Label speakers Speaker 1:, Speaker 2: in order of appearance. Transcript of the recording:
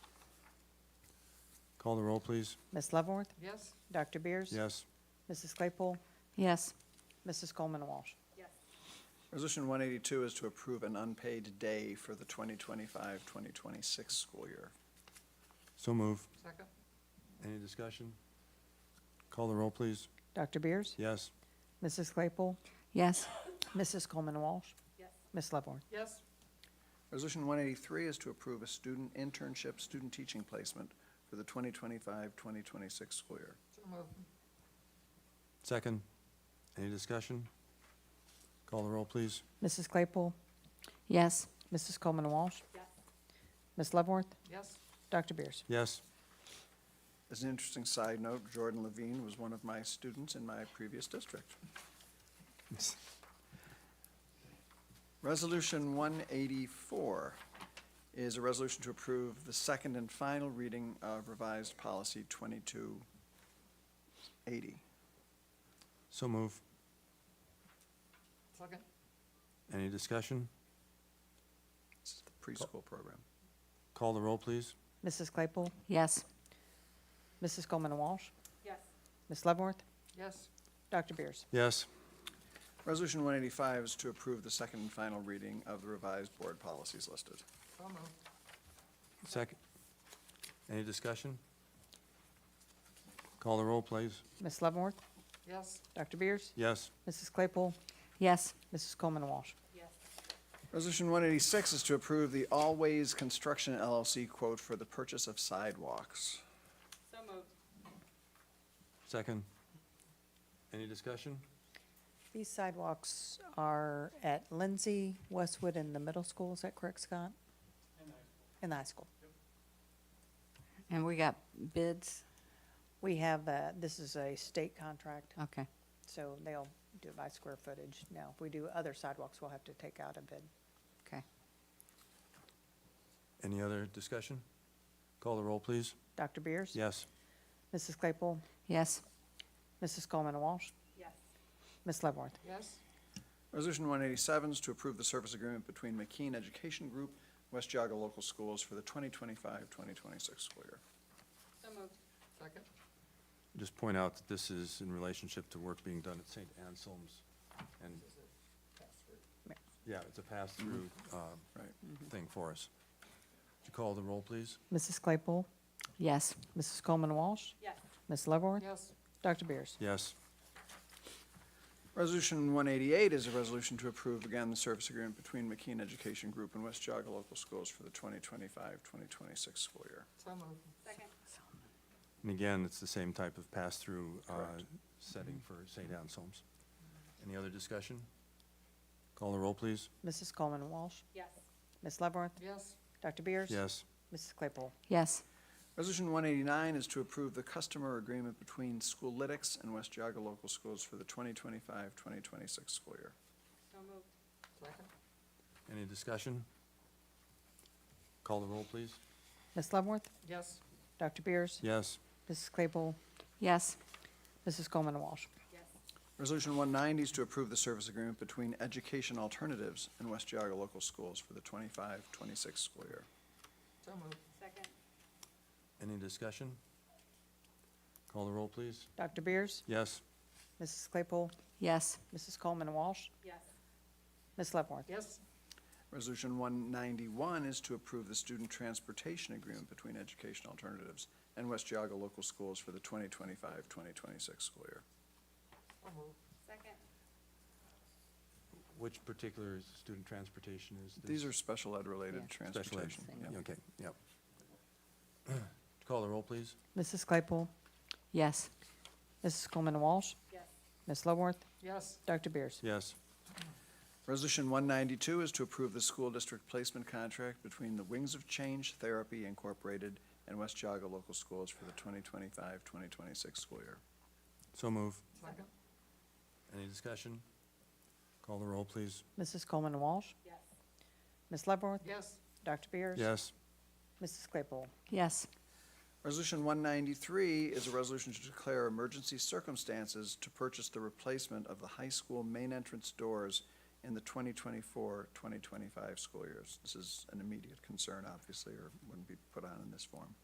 Speaker 1: Call the roll, please.
Speaker 2: Ms. Leavenworth?
Speaker 3: Yes.
Speaker 2: Dr. Beers?
Speaker 1: Yes.
Speaker 2: Mrs. Claypool?
Speaker 4: Yes.
Speaker 2: Mrs. Coleman Walsh?
Speaker 5: Resolution 182 is to approve an unpaid day for the 2025-2026 school year.
Speaker 1: So move.
Speaker 3: Second?
Speaker 1: Any discussion? Call the roll, please.
Speaker 2: Dr. Beers?
Speaker 1: Yes.
Speaker 2: Mrs. Claypool?
Speaker 4: Yes.
Speaker 2: Mrs. Coleman Walsh? Ms. Leavenworth?
Speaker 3: Yes.
Speaker 5: Resolution 183 is to approve a student internship, student teaching placement for the 2025-2026 school year.
Speaker 3: So move.
Speaker 1: Second. Any discussion? Call the roll, please.
Speaker 2: Mrs. Claypool?
Speaker 4: Yes.
Speaker 2: Mrs. Coleman Walsh? Ms. Leavenworth?
Speaker 3: Yes.
Speaker 2: Dr. Beers?
Speaker 1: Yes.
Speaker 5: As an interesting side note, Jordan Levine was one of my students in my previous district. Resolution 184 is a resolution to approve the second and final reading of revised policy 2280.
Speaker 1: So move.
Speaker 3: Second?
Speaker 1: Any discussion?
Speaker 5: This is the preschool program.
Speaker 1: Call the roll, please.
Speaker 2: Mrs. Claypool?
Speaker 4: Yes.
Speaker 2: Mrs. Coleman Walsh? Ms. Leavenworth?
Speaker 3: Yes.
Speaker 2: Dr. Beers?
Speaker 1: Yes.
Speaker 5: Resolution 185 is to approve the second and final reading of the revised board policies listed.
Speaker 3: So move.
Speaker 1: Second. Any discussion? Call the roll, please.
Speaker 2: Ms. Leavenworth?
Speaker 3: Yes.
Speaker 2: Dr. Beers?
Speaker 1: Yes.
Speaker 2: Mrs. Claypool?
Speaker 4: Yes.
Speaker 2: Mrs. Coleman Walsh?
Speaker 5: Resolution 186 is to approve the Always Construction LLC quote for the purchase of sidewalks.
Speaker 1: Second. Any discussion?
Speaker 2: These sidewalks are at Lindsay, Westwood, and the middle school, is that correct, Scott? And the high school.
Speaker 4: And we got bids?
Speaker 2: We have, uh, this is a state contract,
Speaker 4: Okay.
Speaker 2: so they'll do it by square footage. Now, if we do other sidewalks, we'll have to take out a bid.
Speaker 4: Okay.
Speaker 1: Any other discussion? Call the roll, please.
Speaker 2: Dr. Beers?
Speaker 1: Yes.
Speaker 2: Mrs. Claypool?
Speaker 4: Yes.
Speaker 2: Mrs. Coleman Walsh? Ms. Leavenworth?
Speaker 3: Yes.
Speaker 5: Resolution 187 is to approve the service agreement between McKean Education Group, West Jaga Local Schools for the 2025-2026 school year.
Speaker 3: Second?
Speaker 1: Just point out that this is in relationship to work being done at St. Anselm's and. Yeah, it's a pass-through um,
Speaker 5: Mm-hmm. Right.
Speaker 1: thing for us. Would you call the roll, please?
Speaker 2: Mrs. Claypool?
Speaker 4: Yes.
Speaker 2: Mrs. Coleman Walsh?
Speaker 3: Yes.
Speaker 2: Ms. Leavenworth?
Speaker 3: Yes.
Speaker 2: Dr. Beers?
Speaker 1: Yes.
Speaker 5: Resolution 188 is a resolution to approve, again, the service agreement between McKean Education Group and West Jaga Local Schools for the 2025-2026 school year.
Speaker 3: So move. Second?
Speaker 1: And again, it's the same type of pass-through uh,
Speaker 5: Correct.
Speaker 1: setting for St. Anselm's. Any other discussion? Call the roll, please.
Speaker 2: Mrs. Coleman Walsh?
Speaker 3: Yes.
Speaker 2: Ms. Leavenworth?
Speaker 3: Yes.
Speaker 2: Dr. Beers?
Speaker 1: Yes.
Speaker 2: Mrs. Claypool?
Speaker 4: Yes.
Speaker 5: Resolution 189 is to approve the customer agreement between Schoolytics and West Jaga Local Schools for the 2025-2026 school year.
Speaker 3: So move. Second?
Speaker 1: Any discussion? Call the roll, please.
Speaker 2: Ms. Leavenworth?
Speaker 3: Yes.
Speaker 2: Dr. Beers?
Speaker 1: Yes.
Speaker 2: Mrs. Claypool?
Speaker 4: Yes.
Speaker 2: Mrs. Coleman Walsh?
Speaker 5: Resolution 190 is to approve the service agreement between Education Alternatives and West Jaga Local Schools for the 25-26 school year.
Speaker 3: So move. Second?
Speaker 1: Any discussion? Call the roll, please.
Speaker 2: Dr. Beers?
Speaker 1: Yes.
Speaker 2: Mrs. Claypool?
Speaker 4: Yes.
Speaker 2: Mrs. Coleman Walsh?
Speaker 3: Yes.
Speaker 2: Ms. Leavenworth?
Speaker 3: Yes.
Speaker 5: Resolution 191 is to approve the student transportation agreement between Education Alternatives and West Jaga Local Schools for the 2025-2026 school year.
Speaker 3: So move. Second?
Speaker 1: Which particular student transportation is this?
Speaker 5: These are special ed-related
Speaker 4: Yeah.
Speaker 1: Special ed.
Speaker 5: transportation. yeah.
Speaker 1: Okay, yep. Call the roll, please.
Speaker 2: Mrs. Claypool?
Speaker 4: Yes.
Speaker 2: Mrs. Coleman Walsh?
Speaker 3: Yes.
Speaker 2: Ms. Leavenworth?
Speaker 3: Yes.
Speaker 2: Dr. Beers?
Speaker 1: Yes.
Speaker 5: Resolution 192 is to approve the school district placement contract between the Wings of Change Therapy Incorporated and West Jaga Local Schools for the 2025-2026 school year.
Speaker 1: So move.
Speaker 3: Second?
Speaker 1: Any discussion? Call the roll, please.
Speaker 2: Mrs. Coleman Walsh?
Speaker 3: Yes.
Speaker 2: Ms. Leavenworth?
Speaker 3: Yes.
Speaker 2: Dr. Beers?
Speaker 1: Yes.
Speaker 2: Mrs. Claypool?
Speaker 4: Yes.
Speaker 5: Resolution 193 is a resolution to declare emergency circumstances to purchase the replacement of the high school main entrance doors in the 2024-2025 school years. This is an immediate concern, obviously, or wouldn't be put on in this form.